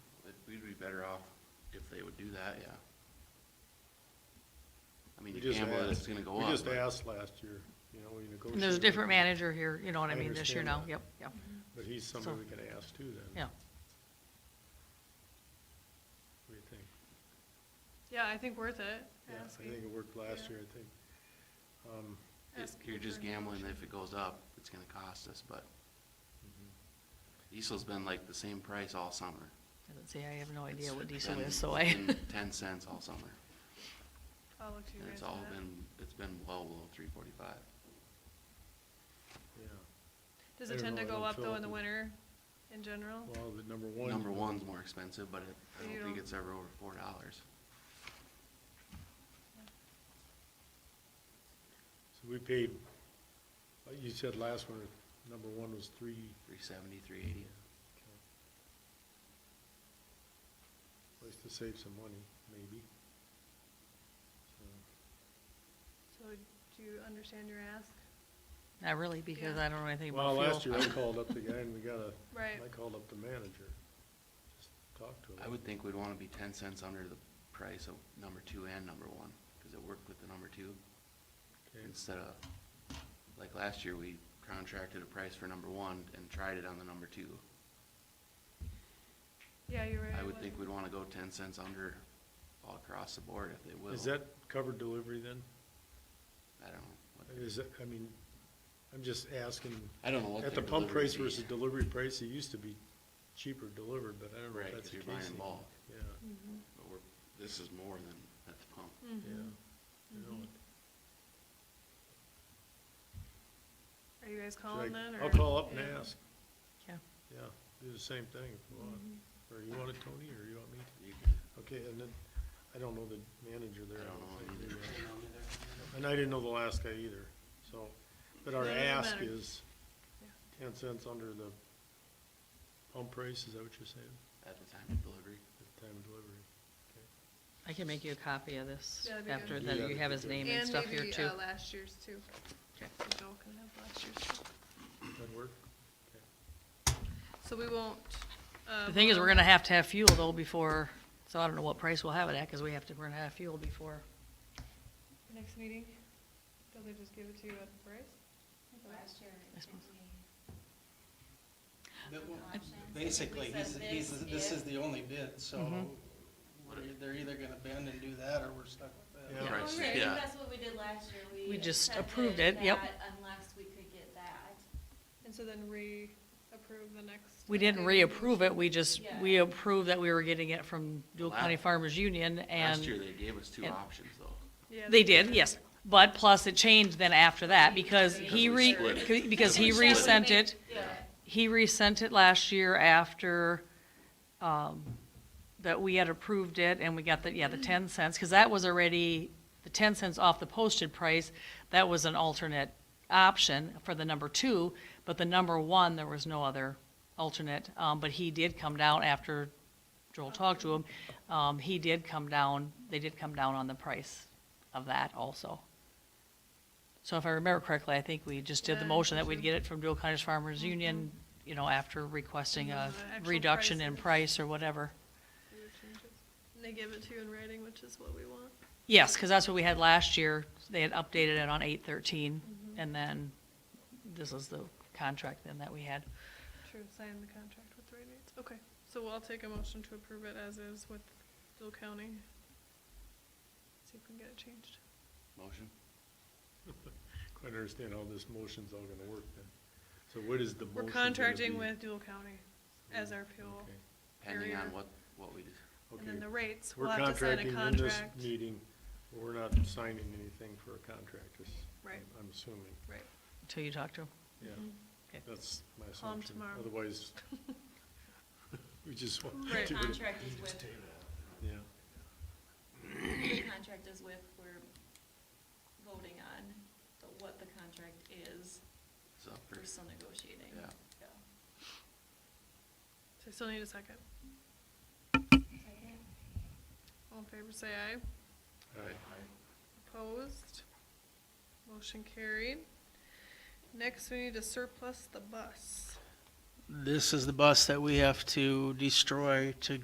better off if they would do that, yeah. I mean, We you just gamble that asked- it's gonna go up. We just but- asked last year, you know, we negotiated. There's a different manager here, you know what I I mean, this year understand now, that. yep, yep, But he's somebody we could ask too then. yeah. What do you think? Yeah, I think worth it, Yeah, I think asking. it worked last yeah. year, I think. Um, it- asking You're just for an gambling that option. if it goes up, it's gonna cost us, but Mm-hmm. diesel's been like the same price all summer. Doesn't say, I have no idea It's what diesel been- is, so it's I, been Ten cents all summer, I'll look to you and guys it's for all that. been, it's been well below three forty-five. yeah, Does I it don't tend know, to I don't go up feel though like in the it- winter in general? well, the number one. Number one's more expensive, but it, I You don't think don't- it's ever over four dollars. So we paid, uh, you said last winter, number one was three, Three seventy, three eighty. place to save some money, maybe. So, So do you understand your ask? not really, because Yeah. I don't know anything Well, about last fuel. year I called up the guy and we got a, Right. I called up the manager, just talked to him. I would think we'd wanna be ten cents under the price of number two and number one, cause it worked with the number two. Okay. Instead of, like last year, we contracted a price for number one and tried it on the number two. Yeah, you're right. I it would think wasn't- we'd wanna go ten cents under all across the board if they will. Is that covered delivery then? I don't know. what- Is that, I mean, I'm just asking, I don't know what at the their pump delivery price fee- versus delivery price, it used to be cheaper delivered, but I don't know Right, if 'cause that's the you're case buying anymore. bulk, Yeah, Mm-hmm. but we're, this is more than at the pump. yeah. Mhm. I know it. Are you guys Should I- calling then? I'll or- call up and yeah. ask, Yeah. yeah, do the same thing if you Mm-hmm. want, or you want it, Tony, or you want me to? You can- Okay, and then, I don't know the manager there. I don't know think either. they, uh, And I didn't know the last guy either, so, but our No, it doesn't ask matter. is Yeah. ten cents under the pump price, is that what you're saying, At the time of delivery. at the time of delivery? Okay. I can make you a copy of this Yeah, that'd be good. after Do that, that, you that'd have his be name and And stuff here maybe too. uh, last year's too. Okay. So Joel can have last year's too. That work? Okay. So we won't. uh, The thing is, vote we're on gonna that. have to have fuel though before, so I don't know what price we'll have it at, cause we have to, we're gonna have fuel before. Next meeting, don't they just give it to you at the price? Last year, I suppose. But w- Basically, he's, he's, this is the only bid, so Mhm. we're- they're either gonna bend and do that, or we're stuck with Yeah. that. Price, Right, yeah. Oh, that's what we did last year. We just approved it, yep. that Unless we could get that. And so then re-approve the next. We didn't updated reapprove it, we just, Yeah. we approved that we were getting it from Dual Wow. County Farmers Union Last year, and they gave us two and- options though. Yeah, they did, yes. But plus it changed then after that because he Because we re, split it. c- because he Because we split resent it. Yeah. He resent it last year after, um, that we had approved it and we got the, yeah, the ten cents, cause that was already, the ten cents off the posted price, that was an alternate option for the number two, but the number one, there was no other alternate, um, but he did come down after Joel talked to him. Um, he did come down, they did come down on the price of that also. So if I remember correctly, I think we just did Yeah, the I motion that think we'd so. get it from Dual Cottage Farmers Union, you know, after requesting a And then the actual reduction in prices. price or whatever. your changes. And they give it to you in writing, which is what we want. Yes, because that's what we had last year. They had updated it on eight thirteen, Mhm. and then this is the contract then that we had. True, sign the contract with the right dates. Okay, so we'll take a motion to approve it as is with Dual County. See if we can get it changed. Motion? Quite understand how this motion's all gonna work then. So what is the motion? We're gonna contracting be? with Dual County as our fuel. Okay, Depending on Area. what, what we, do. And then okay. the rates, We're we'll have to sign a contracting in this contract. meeting, but we're not signing anything for a contract, is. Right. I'm assuming, Right. Until you talk to him. yeah, Mhm. Okay. that's my Call 'em assumption. tomorrow. Otherwise, we just want Right. to, Contract is with, yeah, the contract is with, we're voting on the, what the contract is. it's up for, We're still negotiating. Yeah. So I still need a second. All in favor, say aye. all right. Opposed? Motion carried. Next, we need to surplus the bus. This is the bus that we have to destroy to